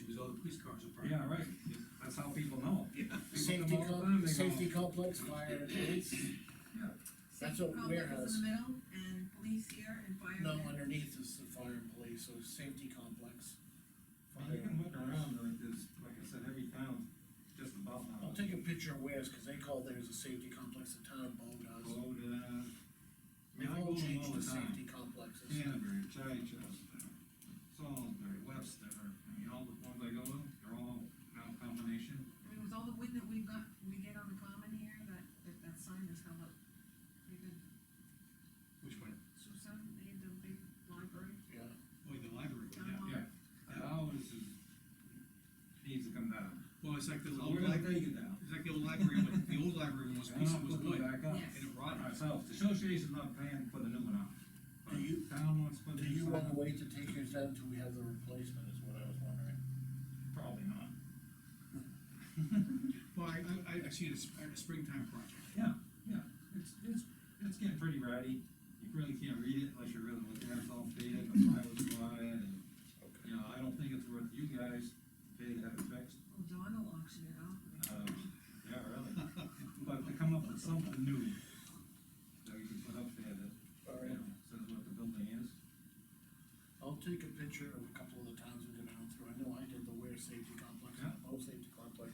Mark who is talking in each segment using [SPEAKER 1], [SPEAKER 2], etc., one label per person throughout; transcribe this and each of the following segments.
[SPEAKER 1] across the front.
[SPEAKER 2] Yeah, right, that's how people know. They go to
[SPEAKER 3] Safety,
[SPEAKER 2] Mall
[SPEAKER 3] com-
[SPEAKER 2] Farm, they go,
[SPEAKER 3] safety complex, fire and police, That's
[SPEAKER 4] Safety
[SPEAKER 3] what
[SPEAKER 4] complex
[SPEAKER 3] warehouse.
[SPEAKER 4] is In the middle, and police here and fire.
[SPEAKER 3] no,
[SPEAKER 4] there.
[SPEAKER 3] underneath is the fire and police, so safety complex.
[SPEAKER 5] You can look around, like there's, like I said, every town, just about now.
[SPEAKER 3] I'll take a picture of Wares, cause they call theirs a safety complex, the town of Bow does.
[SPEAKER 5] Go to,
[SPEAKER 3] They've
[SPEAKER 5] I go to them
[SPEAKER 3] all
[SPEAKER 5] all
[SPEAKER 3] changed to
[SPEAKER 5] the time.
[SPEAKER 3] safety complexes.
[SPEAKER 5] Canterbury, Chichester, Salisbury, Webster, I mean, all the ones I go to, they're all now combination.
[SPEAKER 4] I mean, with all the wind that we've got, we get on the common here, that, that, that sign is held up pretty good.
[SPEAKER 1] Which one?
[SPEAKER 4] So some, they had the big library,
[SPEAKER 3] Yeah,
[SPEAKER 1] Oh, the library, one,
[SPEAKER 4] town
[SPEAKER 1] yeah.
[SPEAKER 4] hall.
[SPEAKER 2] Yeah. That always is, needs to come down.
[SPEAKER 1] Well, it's like the
[SPEAKER 5] We're
[SPEAKER 1] old
[SPEAKER 5] gonna
[SPEAKER 1] library,
[SPEAKER 5] take it now.
[SPEAKER 1] it's like the old library, one. the old library one was,
[SPEAKER 2] And
[SPEAKER 1] piece
[SPEAKER 2] I'll
[SPEAKER 1] was
[SPEAKER 2] put it
[SPEAKER 1] wood, and
[SPEAKER 2] back up
[SPEAKER 4] Yes.
[SPEAKER 1] it rotted.
[SPEAKER 2] ourselves, the association's not paying for the new one out.
[SPEAKER 3] Do you-
[SPEAKER 2] Town wants to put
[SPEAKER 3] do
[SPEAKER 2] these
[SPEAKER 3] you
[SPEAKER 2] on.
[SPEAKER 3] wanna wait to take yours down till we have the replacement, is what I was wondering.
[SPEAKER 2] Probably not.
[SPEAKER 1] Well, I, I, I- I see it as a springtime project.
[SPEAKER 5] Yeah, yeah, it's, it's, it's getting pretty ratty, you really can't read it unless you're really looking at it, it's all faded, the flowers are on it, and, you know, I don't think it's worth you guys pay to have it fixed.
[SPEAKER 4] Well, Dawn will auction it off.
[SPEAKER 5] Um, yeah, really, but to come up with something new that we can put up there that,
[SPEAKER 3] All
[SPEAKER 5] you
[SPEAKER 3] right.
[SPEAKER 5] know, says what the building is.
[SPEAKER 3] I'll take a picture of a couple of the towns we've been out through, I know I did the Ware Safety Complex,
[SPEAKER 5] Yeah.
[SPEAKER 3] the Bow Safety Complex,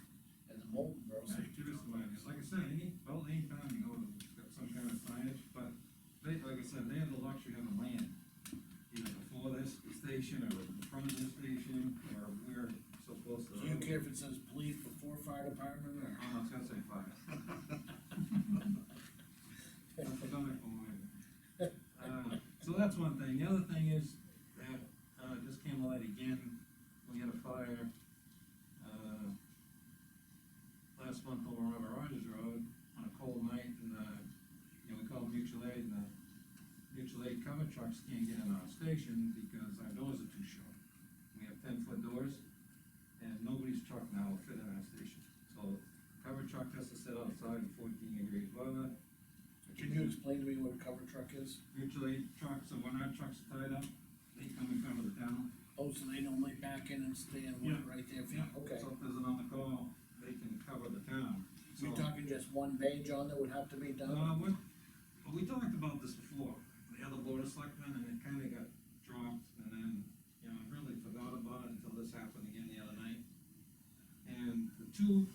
[SPEAKER 3] and the Molten Borough
[SPEAKER 5] Like,
[SPEAKER 3] Safety
[SPEAKER 5] give us the
[SPEAKER 3] Complex.
[SPEAKER 5] ideas. like I said, any, well, any town you go to, it's got some kind of signage, but they, like I said, they have the luxury of having land. Either before this station, or in front of this station, or we're so close to.
[SPEAKER 3] Do
[SPEAKER 5] the
[SPEAKER 3] you
[SPEAKER 5] road.
[SPEAKER 3] care if it says police before fire department or?
[SPEAKER 5] Oh, I was gonna say fire. That's the comic book movie. Uh, So that's one thing, the other thing is that, uh, just came light again, we had a fire, uh, last month over on Robert Rogers Road on a cold night, and, uh, you know, we called mutual aid, and the mutual aid cover trucks can't get in our station because our doors are too short. We have ten-foot doors, and nobody's truck now will fit in our station, so cover truck has to sit outside in fourteen degrees weather.
[SPEAKER 3] Can you explain to me what a cover truck is?
[SPEAKER 5] Mutual aid trucks, and when our trucks are tied up, they come in front of the town.
[SPEAKER 3] Oh, so they normally back in and stay and wait right there for you, okay.
[SPEAKER 5] So if there's another call, they can cover the town.
[SPEAKER 3] So You're
[SPEAKER 5] So-
[SPEAKER 3] talking just one bay, John, that would have to be done?
[SPEAKER 5] Uh, what, well, we talked about this before, the other board of selectmen, and it kinda got dropped, and then, you know, I really forgot about it until this happened again the other night. And the two,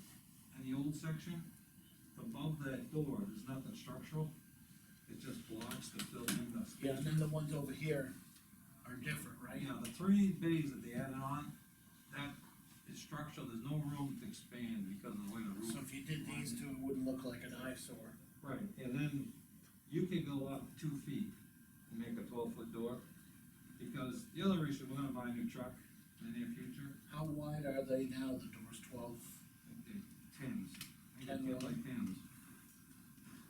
[SPEAKER 5] in the old section, above that door, there's nothing structural, it just blocks the building, the space.
[SPEAKER 3] Yeah, and then the ones over here are different, right?
[SPEAKER 5] Yeah, Uh, the three bays that they added on, that is structural, there's no room to expand because of the way the
[SPEAKER 3] So
[SPEAKER 5] roof.
[SPEAKER 3] if you did these two, it wouldn't look like an eyesore.
[SPEAKER 5] Right, and then you could go up two feet and make a twelve foot door, because the other issue, we're gonna buy a new truck in the near future,
[SPEAKER 3] How wide are they now, the doors, twelve,
[SPEAKER 5] it tens. I think
[SPEAKER 3] Ten
[SPEAKER 5] they're like tens.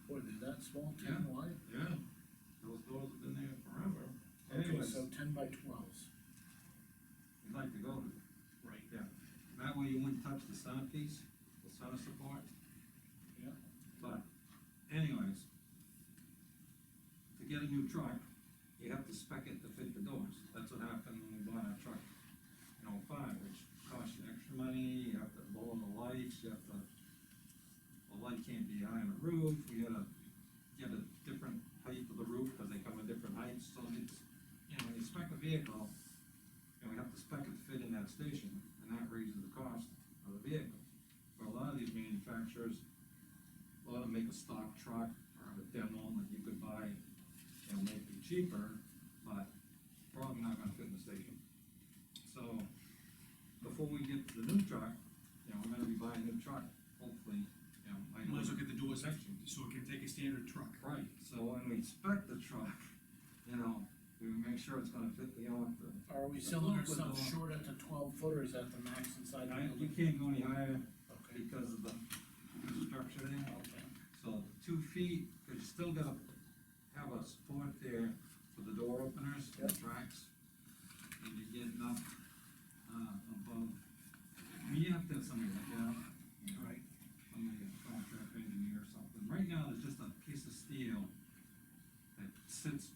[SPEAKER 3] what, they're that small, ten
[SPEAKER 5] Yeah.
[SPEAKER 3] wide?
[SPEAKER 5] Yeah. Those doors have been there forever.
[SPEAKER 3] Okay,
[SPEAKER 5] Anyways,
[SPEAKER 3] so ten by twelves.
[SPEAKER 5] we'd like to go to
[SPEAKER 3] Right.
[SPEAKER 5] That way you wouldn't touch the center piece, the center support.
[SPEAKER 3] Yeah.
[SPEAKER 5] But anyways, to get a new truck, you have to spec it to fit the doors. That's what happened when we bought our truck in oh five, which cost you extra money, you have to lower the lights, you have to, the light can't be high on the roof, you gotta get a different height for the roof, cause they come in different heights, so it's, you know, when you spec a vehicle, and we have to spec it to fit in that station, and that raises the cost of the vehicle. But a lot of these manufacturers, a lot of them make a stock truck or have a demo that you could buy, and make it cheaper, but probably not gonna fit in the station. So, before we get to the new truck, you know, we're gonna be buying a new truck, hopefully, you know. I know-
[SPEAKER 1] Might as well get the doors section, so it can take a standard truck.
[SPEAKER 5] Right, so when we spec the truck, you know, we make sure it's gonna fit the, you know, the
[SPEAKER 3] Are we
[SPEAKER 5] The
[SPEAKER 3] selling
[SPEAKER 5] twelve foot
[SPEAKER 3] ourselves
[SPEAKER 5] door.
[SPEAKER 3] short at the twelve footers at the max inside the
[SPEAKER 5] I, you
[SPEAKER 3] building?
[SPEAKER 5] can't go any higher
[SPEAKER 3] Okay,
[SPEAKER 5] because of the structure there,
[SPEAKER 3] okay.
[SPEAKER 5] so two feet, but you still gotta have a support there for the door openers, the
[SPEAKER 3] Yep.
[SPEAKER 5] tracks. And you're getting up, uh, above, I mean, you have to have somebody like that. you know,
[SPEAKER 3] Right.
[SPEAKER 5] Somebody, a contract engineer or something, right now, there's just a piece of steel that sits